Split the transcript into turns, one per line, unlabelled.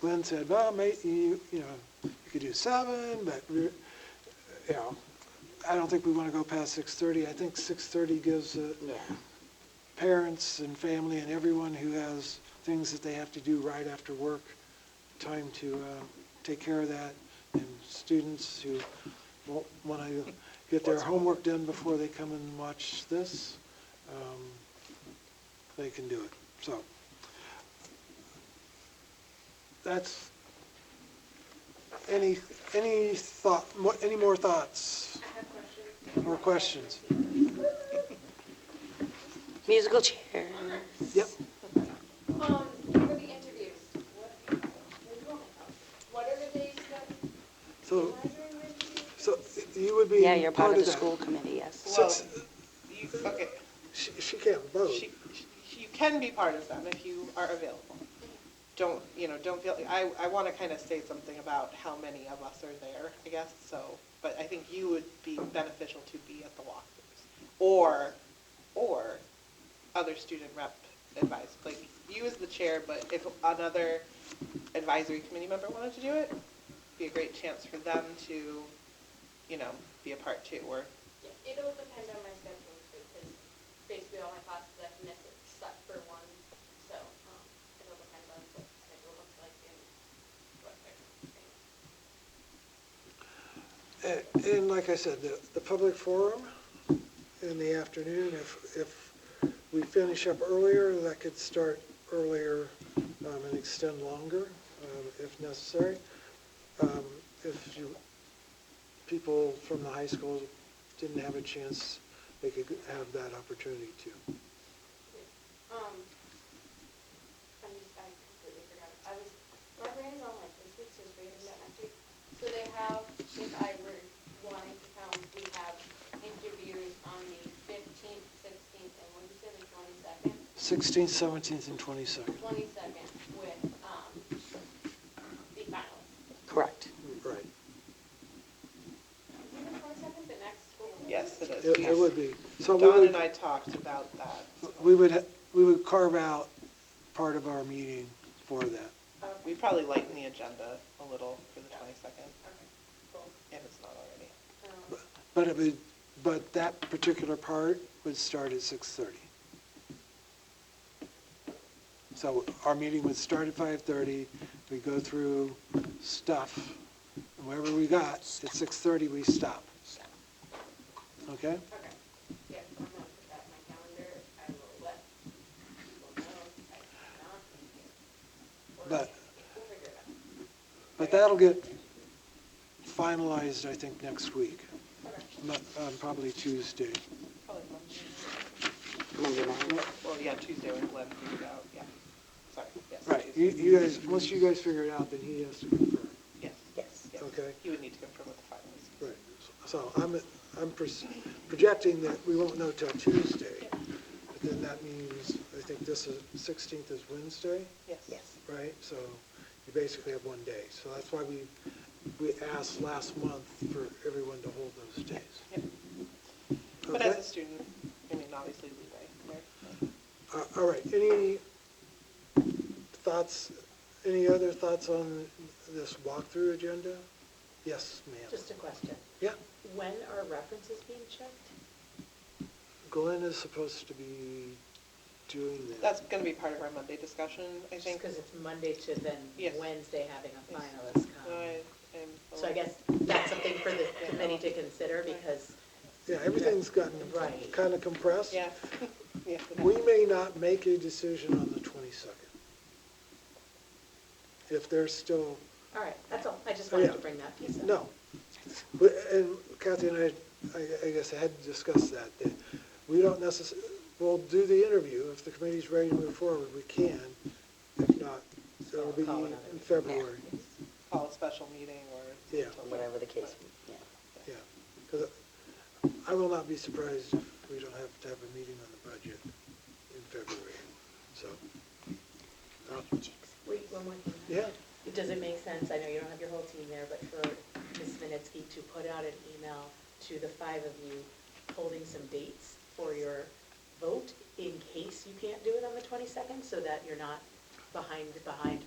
Glenn said, well, mate, you, you know, you could do seven, but we're, you know, I don't think we want to go past six thirty. I think six thirty gives uh, parents and family and everyone who has things that they have to do right after work time to uh, take care of that, and students who won't want to get their homework done before they come and watch this, um, they can do it. So that's, any, any thought, mo- any more thoughts? Or questions?
Musical chair.
Yep.
Um, for the interviews, what, what are the days that,
So,
when are the interviews?
so you would be
Yeah, you're part of the
that.
school committee, yes.
Well,
Since-
you, okay,
She, she can't vote.
she, she- you can be part of them if you are available. Don't, you know, don't feel, I, I want to kind of say something about how many of us are there, I guess, so, but I think you would be beneficial to be at the walkthroughs. Or, or other student rep advice, like you as the chair, but if another advisory committee member wanted to do it, be a great chance for them to, you know, be a part too, or
It'll depend on my schedule too, because basically all my classes I've missed except for one, so, um, it'll depend on what the schedule looks like and what they're saying.
And- And like I said, the, the public forum in the afternoon, if, if we finish up earlier, that could start earlier um, and extend longer um, if necessary. Um, If you, people from the high school didn't have a chance, they could have that opportunity too.
Um, I'm just, I completely forgot. I was, my brain is on like this week, so it's random that next week. So they have, if I were wanting to come, we have interviews on the fifteenth, sixteenth, and when you say the twenty-second?
16th, 17th, and 22nd.
Twenty-second with, um, the finalists.
Correct.
Right.
Is it the twenty-second, the next school?
yes, it is.
It it would be. So we
Don
would-
and I talked about that.
We would, ha- we would carve out part of our meeting for that.
Okay,
We probably lighten the agenda a little for the 22nd,
okay, cool.
if it's not already.
Um,
But it would, but that particular part would start at 6:30. So our meeting would start at 5:30, we go through stuff, and wherever we got, at 6:30, we stop. Okay?
Okay, yes, I'm gonna put that in my calendar, I will let people know if I cannot be here. Or
But-
We'll figure it out.
But that'll get finalized, I think, next week,
Okay,
Mo- um, probably Tuesday.
Probably Monday.
Monday night.
Well, yeah, Tuesday when Glenn figured out, yeah. Sorry, yes.
Right,
Tuesday.
you you guys, once you guys figure it out, then he has to confirm.
Yes.
Yes.
yes.
Okay.
You would need to confirm with the finalists.
Right, so I'm, I'm pres- projecting that we won't know till Tuesday, but then that means, I think this is, 16th is Wednesday,
Yes.
Yes.
right? So you basically have one day, so that's why we, we asked last month for everyone to hold those days.
Yep. But as
Okay?
a student, I mean, obviously leeway there.
Uh, All right, any thoughts, any other thoughts on this walkthrough agenda? Yes, ma'am.
Just a question.
Yeah,
When are references being checked?
Glenn is supposed to be doing that.
That's going to be part of our Monday discussion, I
Just
think.
because it's Monday to then
Yes.
Wednesday having a
Yes.
finalist
So
come.
I- I'm a
um, So I
little-
guess that's something for the committee to consider because,
Yeah, everything's gotten
Right.
kind of compressed.
Yeah. Yeah.
We may not make a decision on the 22nd. If there's still,
all right, that's all. I just
Oh,
wanted
yeah.
to bring that piece up.
no. But- And Kathy and I, I- I guess I had discussed that, that we don't necess, we'll do the interview. If the committee's ready to move forward, we can. If not, it'll be
Call another
in
meeting.
February.
Call a special meeting or.
Yeah.
Whatever the case, yeah.
Yeah, because I will not be surprised if we don't have to have a meeting on the budget in February, so. uh,
Wait, one more thing.
Yeah,
Does it make sense, I know you don't have your whole team there, but for Ms. Minnetsky to put out an email to the five of you holding some dates for your vote in case you can't do it on the 22nd, so that you're not behind, behind